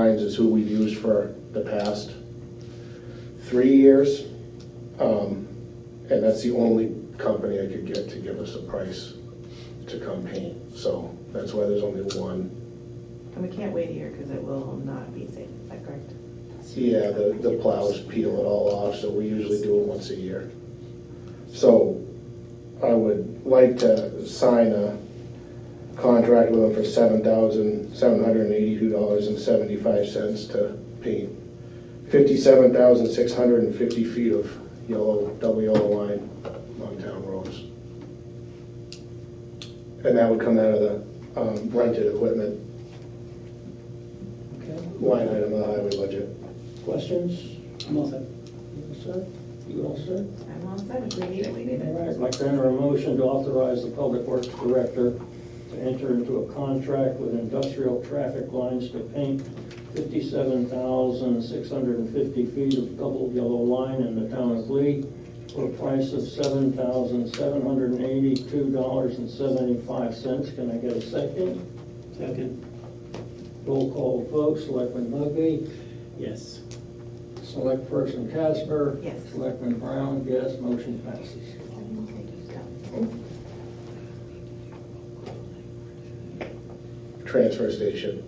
Hines is who we've used for the past three years. Um, And that's the only company I could get to give us a price to come paint. So that's why there's only one. And we can't wait a year because it will not be safe, is that correct? Yeah, the, the plows peel it all off, so we usually do it once a year. So I would like to sign a contract with them for seven thousand, seven hundred and eighty-two dollars and seventy-five cents to paint fifty-seven thousand, six hundred and fifty feet of yellow, double yellow line on town roads. And that would come out of the um, rented equipment Okay, line item of the highway budget. questions? I'm all set. You all set? You all set? I'm all set, if we need it, we need All it. right, my grant a motion to authorize the Public Works Director to enter into a contract with industrial traffic lines to paint fifty-seven thousand six hundred and fifty feet of double yellow line in the town of Lee for a price of seven thousand seven hundred and eighty-two dollars and seventy-five cents. Can I get a second? Second, Roll call vote, Selectman Hugby? yes. Select person Casper? Yes. Selectman Brown, yes, motion passes. transfer station.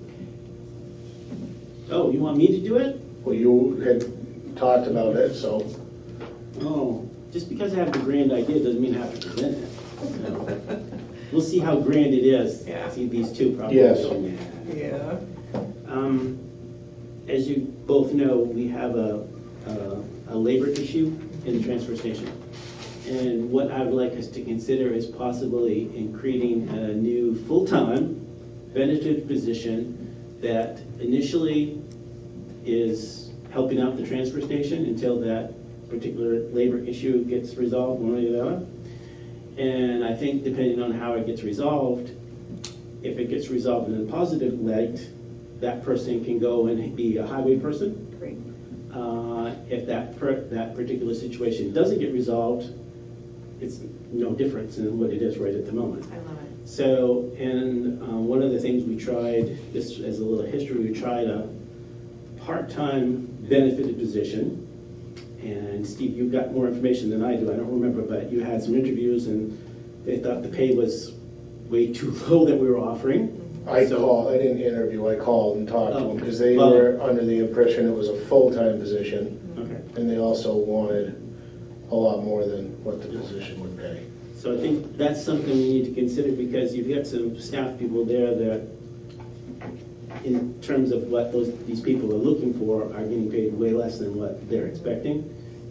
Oh, you want me to do it? Well, you had talked about it, so Oh, just because I have a grand idea doesn't mean I have to present it. No. We'll see how grand it is. Yeah. See these two probably. Yes. go, "Nah." Yeah. Um, As you both know, we have a, a- a labor issue in the transfer station. And what I would like us to consider is possibly in creating a new full-time benefit position that initially is helping out the transfer station until that particular labor issue gets resolved one way or the other. And I think depending on how it gets resolved, if it gets resolved in a positive light, that person can go and be a highway person. Great. Uh, If that, per- that particular situation doesn't get resolved, it's no difference in what it is right at the moment. I love it. So, and uh, one of the things we tried, just as a little history, we tried a part-time benefited position. And Steve, you've got more information than I do, I don't remember, but you had some interviews and they thought the pay was way too low that we were offering. I So- called, I didn't interview, I called and talked to them because they Oh, well- were under the impression it was a full-time position Okay, and they also wanted a lot more than what the position would pay. so I think that's something we need to consider because you've got some staff people there that in terms of what those, these people are looking for, are getting paid way less than what they're expecting.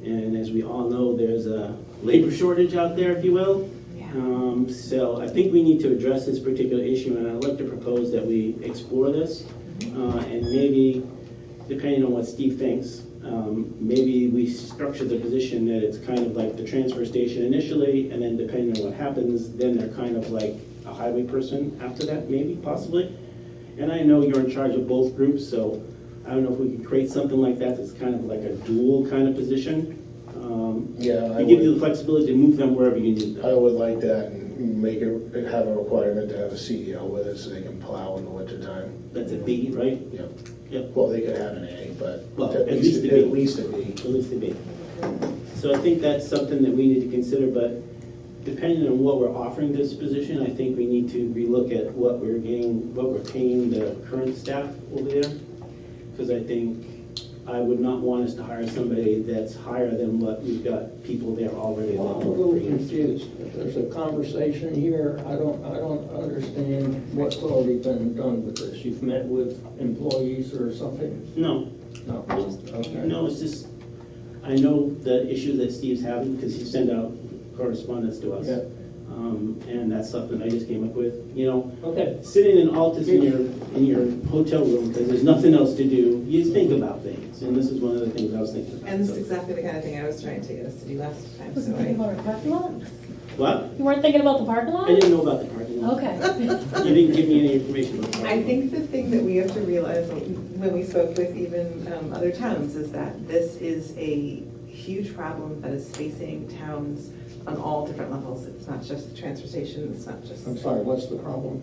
And as we all know, there's a labor shortage out there, if you will. Yeah. Um, So I think we need to address this particular issue, and I'd like to propose that we explore this. Uh, And maybe, depending on what Steve thinks, um, maybe we structure the position that it's kind of like the transfer station initially, and then depending on what happens, then they're kind of like a highway person after that, maybe, possibly. And I know you're in charge of both groups, so I don't know if we could create something like that that's kind of like a dual kind of position. Um, Yeah, I To give you the would, flexibility to move them wherever you need them. I would like that and make it, have a requirement to have a CEO with it so they can plow in the wintertime. That's a B, right? Yep. Yep, Well, they could have an A, but Well, at at least, least a B. at least a B. at least a B. So I think that's something that we need to consider, but depending on what we're offering this position, I think we need to relook at what we're getting, what we're paying the current staff over there. Because I think I would not want us to hire somebody that's higher than what we've got people there already. that Well, I'm a work little for you. confused. If There's a conversation here, I don't, I don't understand what's already been done with this. You've met with employees or something? No, No, okay. No, it's just, I know the issue that Steve's having, because he sent out correspondence to us. Yeah. Um, and that's something I just came up with, you know, Okay, sitting in Altus in your, in your hotel room, because there's nothing else to do, you just think about things, and this is one of the things I was thinking about. And this so. is exactly the kind of thing I was trying to get us to do last time, Was so it thinking I. about our parking lot? What? You weren't thinking about the parking I lot? didn't know about the parking lot. Okay. You didn't give me any information about the parking I lot. think the thing that we have to realize when we spoke with even um, other towns is that this is a huge problem that is facing towns on all different levels. It's not just the transfer station, it's not just I'm sorry, what's the problem?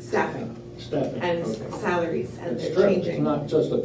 staffing Staffing. and Okay. salaries and It's they're true. changing. It's not just a